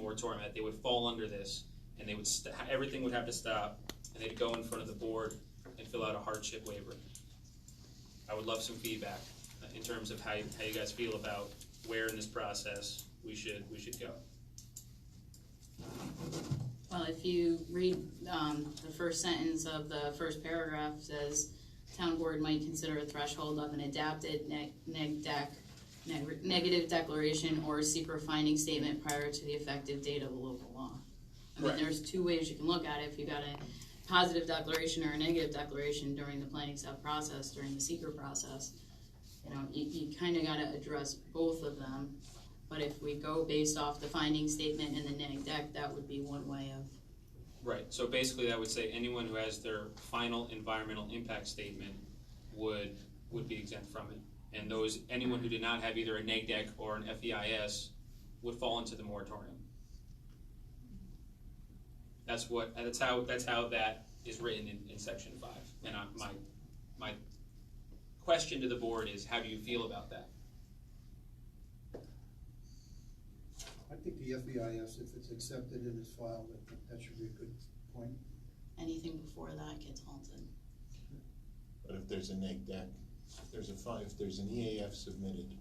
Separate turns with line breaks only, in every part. moratorium, that they would fall under this, and they would, st- everything would have to stop, and they'd go in front of the board and fill out a hardship waiver. I would love some feedback uh, in terms of how, you- how you guys feel about where in this process we should, we should go.
Well, if you read, um, the first sentence of the first paragraph says, town board might consider a threshold of an adapted neg, neg deck, neg- negative declaration or secret finding statement prior to the effective date of the local law. I mean,
Correct.
there's two ways you can look at it, if you got a positive declaration or a negative declaration during the planning sub process, during the secret process. You know, you, you kinda gotta address both of them. But if we go based off the finding statement and the neg deck, that would be one way of,
Right, so basically that would say anyone who has their final environmental impact statement would, would be exempt from it. And those, anyone who did not have either a neg deck or an FEIS would fall into the moratorium. That's what, that's how, that's how that is written in, in section five. And I, my, my question to the board is, how do you feel about that?
I think the FEIS, if it's accepted and is filed, I think that should be a good point.
anything before that gets halted.
But if there's a neg deck, if there's a fi- if there's an EAF submitted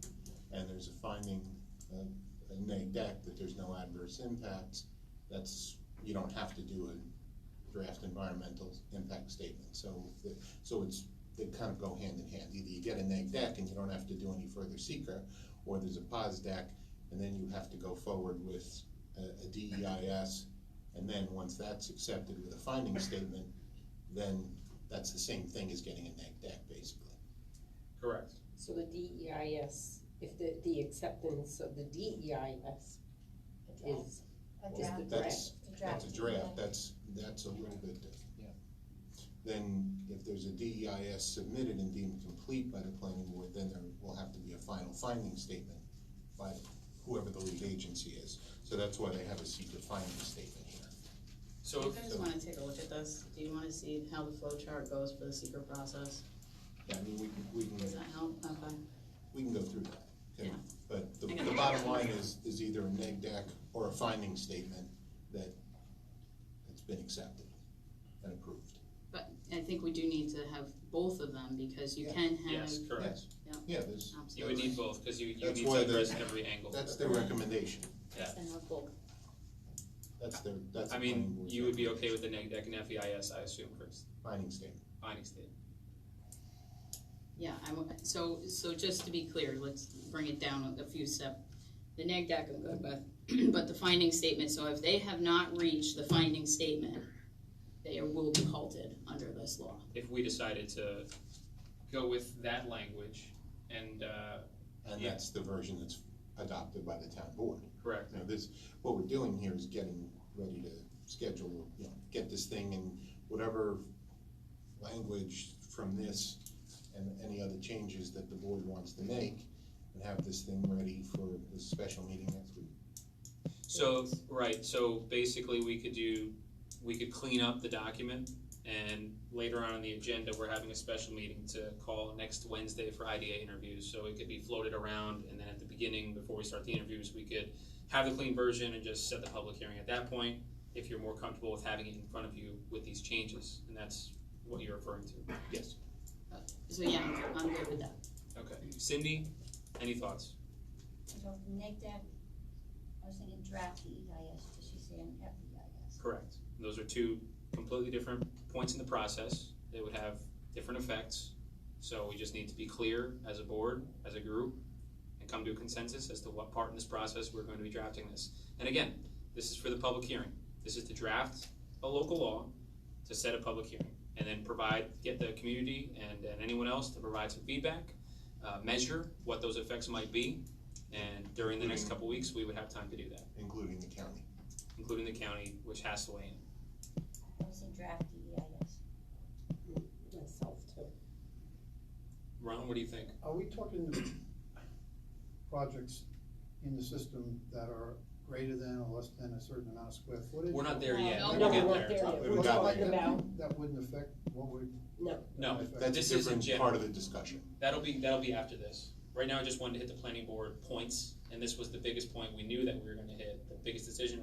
and there's a finding, uh, a neg deck that there's no adverse impacts, that's, you don't have to do a draft environmental impact statement, so, the- so it's, they kind of go hand in hand, either you get a neg deck and you don't have to do any further secra, or there's a pos deck, and then you have to go forward with a, a DEIS, and then once that's accepted with a finding statement, then that's the same thing as getting a neg deck, basically.
Correct.
So the DEIS, if the, the acceptance of the DEIS is,
Adapt.
That's, that's a draft,
Adapt.
that's, that's a little bit different. Then if there's a DEIS submitted and deemed complete by the planning board, then there will have to be a final finding statement by whoever the lead agency is. So that's why they have a secret finding statement here.
So
You
if-
guys wanna take a look at this? Do you wanna see how the flow chart goes for the secret process?
Yeah, I mean, we can, we
Does
can,
that help? Okay.
we can go through that. okay?
Yeah.
But the,
I got
the
it.
bottom line is, is either a neg deck or a finding statement that it's been accepted and approved.
But I think we do need to have both of them because you
Yeah.
can have,
yes, correct.
Yes.
Yeah.
Yeah, there's.
You would need both, because you, you
That's
need to
why the-
address every angle.
That's their recommendation,
Yeah.
and have both.
that's their, that's.
I
the planning
mean,
board's
you would be okay
recommendation.
with the neg deck and FEIS, E I assume, Chris,
Finding statement,
finding statement.
Yeah, I'm, so, so just to be clear, let's bring it down a few step. The neg deck I'm good with, but the finding statement, so if they have not reached the finding statement, they will be halted under this law.
If we decided to go with that language and, uh,
and
Yeah.
that's the version that's adopted by the town board.
correct,
You know, this, what we're doing here is getting ready to schedule, you know, get this thing and whatever language from this and any other changes that the board wants to make, and have this thing ready for the special meeting next week.
so, right, so basically we could do, we could clean up the document and later on in the agenda, we're having a special meeting to call next Wednesday for IDA interviews, so it could be floated around and then at the beginning, before we start the interviews, we could have the clean version and just set the public hearing at that point, if you're more comfortable with having it in front of you with these changes, and that's what you're referring to.
Yes.
So yeah, I'm- I'm good with that.
Okay. Cindy, any thoughts?
So neg deck, I was thinking draft EIS, did she say E an FEIS?
Correct. Those are two completely different points in the process. They would have different effects. So we just need to be clear as a board, as a group, and come to a consensus as to what part in this process we're going to be drafting this. And again, this is for the public hearing. This is to draft a local law to set a public hearing and then provide, get the community and, and anyone else to provide some feedback, uh, measure what those effects might be. And during the next couple weeks, we would have time to do that,
Including the county.
including the county, which has to weigh in.
I was in draft E EIS.
myself too.
Ron, what do you think?
Are we talking to projects in the system that are greater than or less than a certain amount of square footage?
We're not there yet.
No,
We'll
no,
get
we're
there.
not there yet.
We
Well,
haven't got
like
there
that-
yet.
About-
That wouldn't affect what we're.
No.
No,
That's
This
a
is in
different
general.
part of the discussion.
That'll be that'll be after this. Right now, I just wanted to hit the planning board points, and this was the biggest point we knew that we were going to hit. The biggest decision